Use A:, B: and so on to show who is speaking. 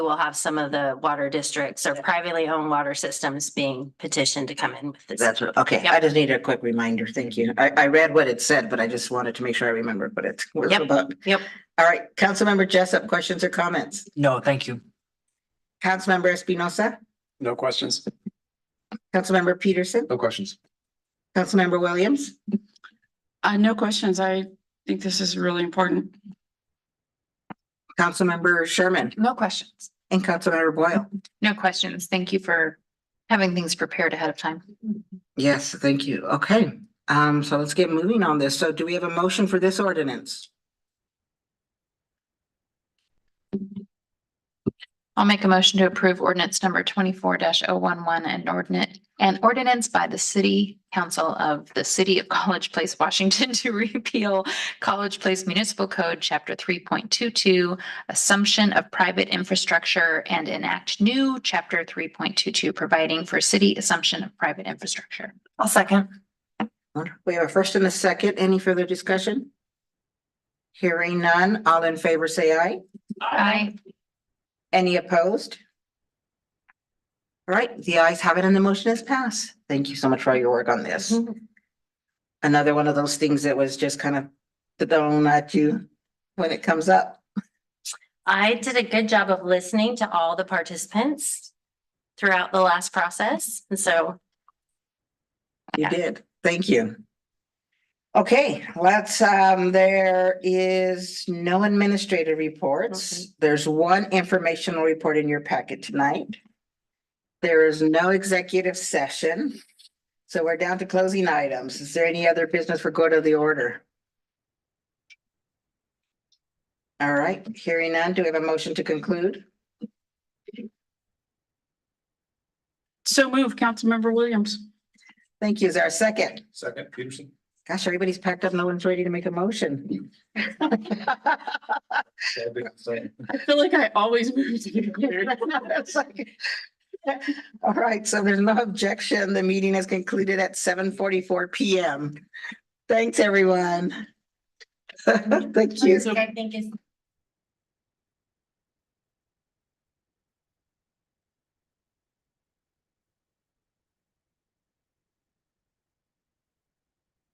A: we'll have some of the water districts or privately owned water systems being petitioned to come in with this.
B: That's what, okay, I
A: Yep.
B: just needed a quick reminder. Thank you. I, I read what it said, but I just wanted to make sure I remembered what it was
A: Yep.
B: about.
A: Yep.
B: All right, Councilmember Jessup, questions or comments?
C: No, thank you.
B: Councilmember Espinosa,
D: No questions?
B: Councilmember Peterson,
D: No questions.
B: Councilmember Williams,
E: Uh, no questions. I think this is really important.
B: Councilmember Sherman,
F: No questions.
B: and Councilmember Boyle.
F: No questions. Thank you for having things prepared ahead of time.
B: Yes, thank you. Okay, um, so let's get moving on this. So do we have a motion for this ordinance?
F: I'll make a motion to approve ordinance number twenty-four 11 and ordinance, an ordinance by the city council of the city of College Place, Washington to repeal College Place Municipal Code, chapter three point two-two, assumption of private infrastructure and enact new chapter three point two-two, providing for city assumption of private infrastructure.
C: I'll second.
B: We have a first and a second. Any further discussion? Hearing none, all in favor, say aye.
F: Aye.
B: Any opposed? All right, the ayes have it and the motion is passed. Thank you so much for all your work on this. Another one of those things that was just kind of thrown at you when it comes up.
A: I did a good job of listening to all the participants throughout the last process. And so
B: You
A: Yeah.
B: did. Thank you. Okay, let's, um, there is no administrative reports. There's one informational report in your packet tonight. There is no executive session. So we're down to closing items. Is there any other business for go to the order? All right, hearing none, do we have a motion to conclude?
E: So move, Councilmember Williams.
B: Thank you. Is there a second?
D: Second, Peterson?
B: Gosh, everybody's packed up. No one's ready to make a motion.
E: I feel like I always move to the clear.
B: It's like- All right, so there's no objection. The meeting is concluded at seven forty-four PM. Thanks, everyone. Thank you.
E: So-
A: I think it's